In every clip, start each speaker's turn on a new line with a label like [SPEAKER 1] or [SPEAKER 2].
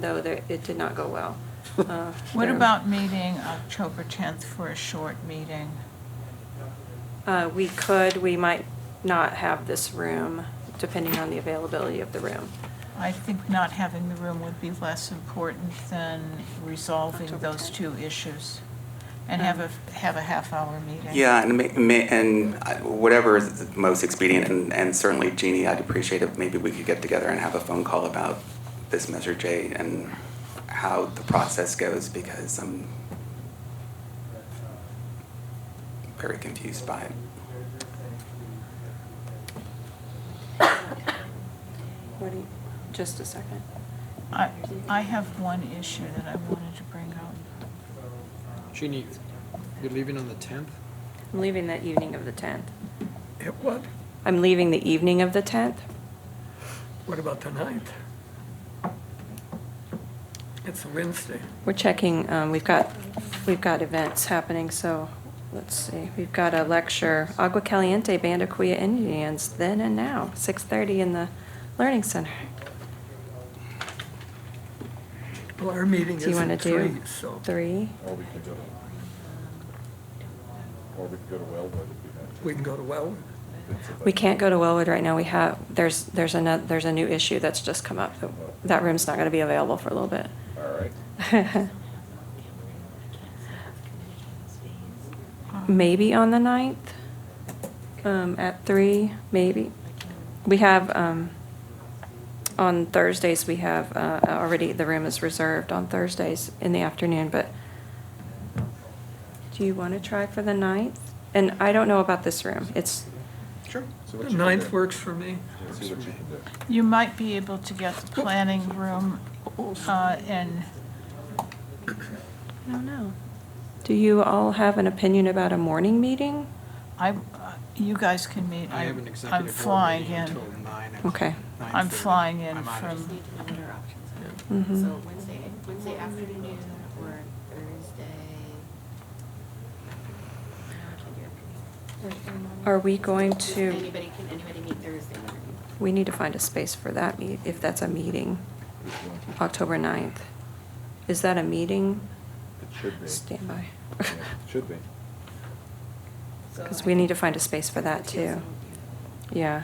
[SPEAKER 1] though there- it did not go well. Uh,
[SPEAKER 2] What
[SPEAKER 1] there-
[SPEAKER 2] about meeting October 10th for a short meeting?
[SPEAKER 1] Uh, We could, we might not have this room, depending on the availability of the room.
[SPEAKER 2] I think not having the room would be less important than resolving
[SPEAKER 1] October
[SPEAKER 2] those
[SPEAKER 1] 10th.
[SPEAKER 2] two issues and have a, have a half-hour meeting.
[SPEAKER 3] Yeah, and, ma- ma- and I- whatever is the most expedient, and, and certainly Jeannie, I'd appreciate if maybe we could get together and have a phone call about this Measure J and how the process goes, because I'm very confused by it.
[SPEAKER 1] What do you, just a second.
[SPEAKER 2] I, I have one issue that I wanted to bring up.
[SPEAKER 4] Jeannie, you're leaving on the 10th?
[SPEAKER 1] I'm leaving that evening of the 10th.
[SPEAKER 5] It what?
[SPEAKER 1] I'm leaving the evening of the 10th.
[SPEAKER 5] What about the ninth? It's a Wednesday.
[SPEAKER 1] We're checking, um, we've got, we've got events happening, so let's see. We've got a lecture, Agua Caliente Band of Kuya Indians, then and now, 6:30 in the Learning Center.
[SPEAKER 5] Well, our meeting
[SPEAKER 1] Do
[SPEAKER 5] is
[SPEAKER 1] you want to
[SPEAKER 5] at
[SPEAKER 1] do
[SPEAKER 5] three, so
[SPEAKER 1] three?
[SPEAKER 6] Or we could go to, or we could go to Wellwood if we had to.
[SPEAKER 5] we can go to Wellwood.
[SPEAKER 6] It's a
[SPEAKER 1] We
[SPEAKER 6] budget.
[SPEAKER 1] can't go to Wellwood right now. We have, there's, there's another, there's a new issue that's just come up. That room's not going to be available for a little bit.
[SPEAKER 6] All right.
[SPEAKER 1] Maybe on the 9th, um, at three, maybe. We have, um, on Thursdays, we have, uh, already, the room is reserved on Thursdays in the afternoon, but do you want to try for the 9th? And I don't know about this room. It's,
[SPEAKER 6] Sure. See what
[SPEAKER 5] The
[SPEAKER 6] you can
[SPEAKER 5] ninth
[SPEAKER 6] do.
[SPEAKER 5] works for me.
[SPEAKER 6] See what you can do.
[SPEAKER 2] You might be able to get the planning room uh, in
[SPEAKER 1] I don't know. Do you all have an opinion about a morning meeting?
[SPEAKER 2] I, you guys can meet.
[SPEAKER 4] I have an
[SPEAKER 2] I'm-
[SPEAKER 4] executive
[SPEAKER 2] I'm
[SPEAKER 4] board
[SPEAKER 2] flying
[SPEAKER 4] meeting
[SPEAKER 2] in.
[SPEAKER 4] until 9. at
[SPEAKER 1] Okay.
[SPEAKER 4] 9:30.
[SPEAKER 2] I'm flying in
[SPEAKER 4] I'm out of-
[SPEAKER 2] from,
[SPEAKER 7] What are options?
[SPEAKER 1] Mhm.
[SPEAKER 7] So Wednesday, Wednesday afternoon or Thursday?
[SPEAKER 1] Are we going to,
[SPEAKER 7] Anybody, can anybody meet Thursday morning?
[SPEAKER 1] we need to find a space for that meet, if that's a meeting,
[SPEAKER 6] Which one?
[SPEAKER 1] October 9th. Is that a meeting?
[SPEAKER 6] It should be.
[SPEAKER 1] Stand by.
[SPEAKER 6] Yeah, it Should be.
[SPEAKER 1] Because we need to find a space for that too. Yeah.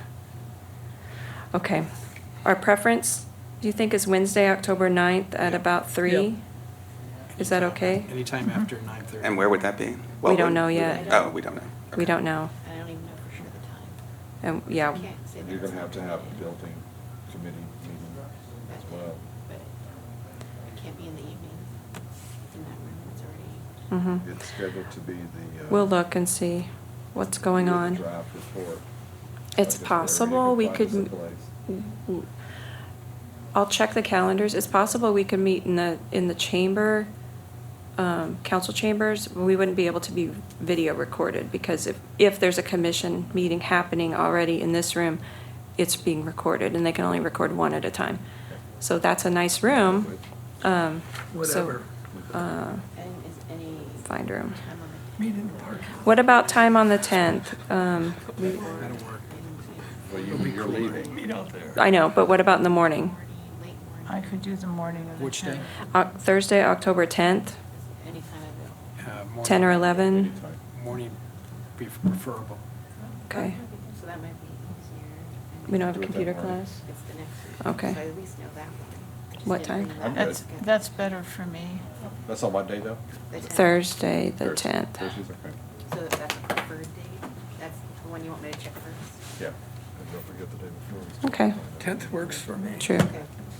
[SPEAKER 1] Okay. Our preference, do you think is Wednesday, October 9th at about 3? Is that okay?
[SPEAKER 4] Anytime
[SPEAKER 2] Mm-hmm.
[SPEAKER 4] after 9:30.
[SPEAKER 3] And where would that be?
[SPEAKER 1] We don't
[SPEAKER 3] Wellwood?
[SPEAKER 1] know yet.
[SPEAKER 3] Oh, we don't know.
[SPEAKER 1] We
[SPEAKER 3] Okay.
[SPEAKER 1] don't know.
[SPEAKER 7] I don't even know for sure the time.
[SPEAKER 1] And, yeah,
[SPEAKER 7] Can't say
[SPEAKER 6] And you're
[SPEAKER 7] that.
[SPEAKER 6] gonna have to have a building committee meeting
[SPEAKER 7] That
[SPEAKER 6] as
[SPEAKER 7] day,
[SPEAKER 6] well.
[SPEAKER 7] But it can't be in the evening. It's in that room, it's already.
[SPEAKER 1] mhm.
[SPEAKER 6] It's scheduled to be the. uh,
[SPEAKER 1] We'll look and see what's going
[SPEAKER 6] your
[SPEAKER 1] on.
[SPEAKER 6] Draft report.
[SPEAKER 1] It's
[SPEAKER 6] Like, if
[SPEAKER 1] possible we
[SPEAKER 6] everybody
[SPEAKER 1] could,
[SPEAKER 6] can
[SPEAKER 1] m-
[SPEAKER 6] find us
[SPEAKER 1] I'll check the calendars. It's possible we could meet in the, in the chamber, um, council chambers. We wouldn't be able to be video recorded because if, if there's a commission meeting happening already in this room, it's being recorded and they can only record one at a time. So that's a nice room. um, so,
[SPEAKER 5] Whatever.
[SPEAKER 1] uh,
[SPEAKER 7] And is any?
[SPEAKER 1] Find room.
[SPEAKER 7] time on the-
[SPEAKER 5] Meet in the park.
[SPEAKER 1] What about time on the 10th? Um, we-
[SPEAKER 4] That'll work.
[SPEAKER 6] a place. Well, you, you're leaving. Uh,
[SPEAKER 5] Meet out there.
[SPEAKER 1] I know, but what about in the morning?
[SPEAKER 7] Morning, late morning.
[SPEAKER 2] I could do the morning of the
[SPEAKER 4] Which day?
[SPEAKER 2] 10th.
[SPEAKER 1] Oc- Thursday, October 10th,
[SPEAKER 7] Anytime available.
[SPEAKER 4] Uh, morning-
[SPEAKER 1] 10 or 11?
[SPEAKER 6] Anytime.
[SPEAKER 4] Morning be preferable.
[SPEAKER 1] Okay.
[SPEAKER 7] So that might be easier.
[SPEAKER 1] We don't have a
[SPEAKER 6] Do it that
[SPEAKER 1] computer
[SPEAKER 6] morning.
[SPEAKER 1] class?
[SPEAKER 7] It's the next week.
[SPEAKER 1] Okay.
[SPEAKER 7] So I at least know that one. I just
[SPEAKER 1] What
[SPEAKER 7] didn't
[SPEAKER 1] time?
[SPEAKER 7] bring that
[SPEAKER 6] I'm
[SPEAKER 7] up.
[SPEAKER 2] That's, that's better for me.
[SPEAKER 6] That's on what day though?
[SPEAKER 7] The 10th.
[SPEAKER 1] Thursday, the
[SPEAKER 6] Thursday.
[SPEAKER 1] 10th.
[SPEAKER 6] Thursday's okay.
[SPEAKER 7] So that's a preferred date? That's the one you want me to check first?
[SPEAKER 6] Yeah. And don't forget the day before. we start.
[SPEAKER 1] Okay.
[SPEAKER 5] Tenth works for me.
[SPEAKER 1] True.
[SPEAKER 7] Okay.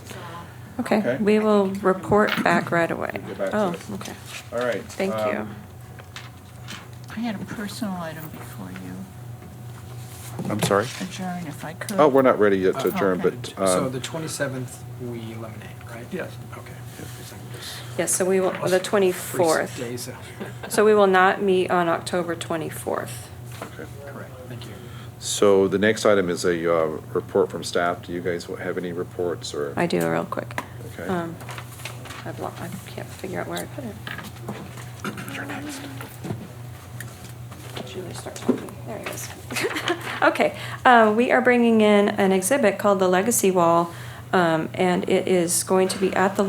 [SPEAKER 7] So I'll-
[SPEAKER 1] Okay,
[SPEAKER 6] Okay.
[SPEAKER 1] we will report back right away.
[SPEAKER 6] We'll get back to
[SPEAKER 1] Oh,
[SPEAKER 6] this.
[SPEAKER 1] okay.
[SPEAKER 6] All right.
[SPEAKER 1] Thank
[SPEAKER 6] um,
[SPEAKER 2] I had a personal item before you
[SPEAKER 6] I'm sorry?
[SPEAKER 2] adjourn, if I could.
[SPEAKER 6] Oh, we're not ready yet
[SPEAKER 2] Uh,
[SPEAKER 6] to adjourn,
[SPEAKER 2] okay.
[SPEAKER 6] but,
[SPEAKER 4] So
[SPEAKER 6] um,
[SPEAKER 4] the 27th, we eliminate, right?
[SPEAKER 5] Yes.
[SPEAKER 4] Okay. Because I'm just-
[SPEAKER 1] Yes, so we will, the
[SPEAKER 4] Free
[SPEAKER 1] 24th.
[SPEAKER 4] Days out.
[SPEAKER 1] So we will not meet on October 24th.
[SPEAKER 6] okay.
[SPEAKER 4] Correct, thank you.
[SPEAKER 6] So the next item is a uh, report from staff. Do you guys have any reports or?
[SPEAKER 1] I do real quick.
[SPEAKER 6] Okay.
[SPEAKER 1] Um, I've lo- I can't figure out where I put it. Julie, start talking. There it is. Okay, uh, we are bringing in an exhibit called The Legacy Wall, um, and it is going to be at the